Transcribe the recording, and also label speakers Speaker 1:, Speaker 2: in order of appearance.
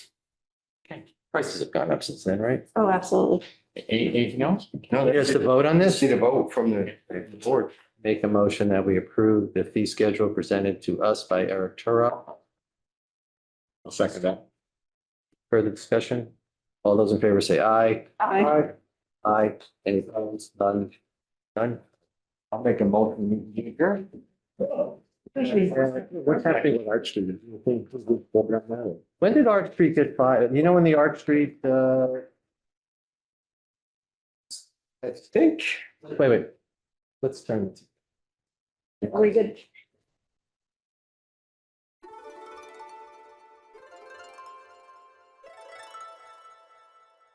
Speaker 1: Prices have gone up since then, right?
Speaker 2: Oh, absolutely.
Speaker 1: Any- Anything else?
Speaker 3: No, that's
Speaker 1: Here's the
Speaker 3: it.
Speaker 1: vote on
Speaker 3: Just
Speaker 1: this.
Speaker 3: need a vote from the the board.
Speaker 1: Make a motion that we approve the fee schedule presented to us by Eric Turok.
Speaker 4: I'll second that.
Speaker 1: Further discussion? All those in favor say aye.
Speaker 2: I,
Speaker 1: Aye. Any opposed? None? None?
Speaker 3: I'll make a motion. You agree?
Speaker 4: What's happening with Arch Street? You think this is a program now?
Speaker 1: When did Arch Street get filed? You know when the Arch Street, uh,
Speaker 3: I think.
Speaker 1: wait, wait. Let's turn.
Speaker 2: are we good?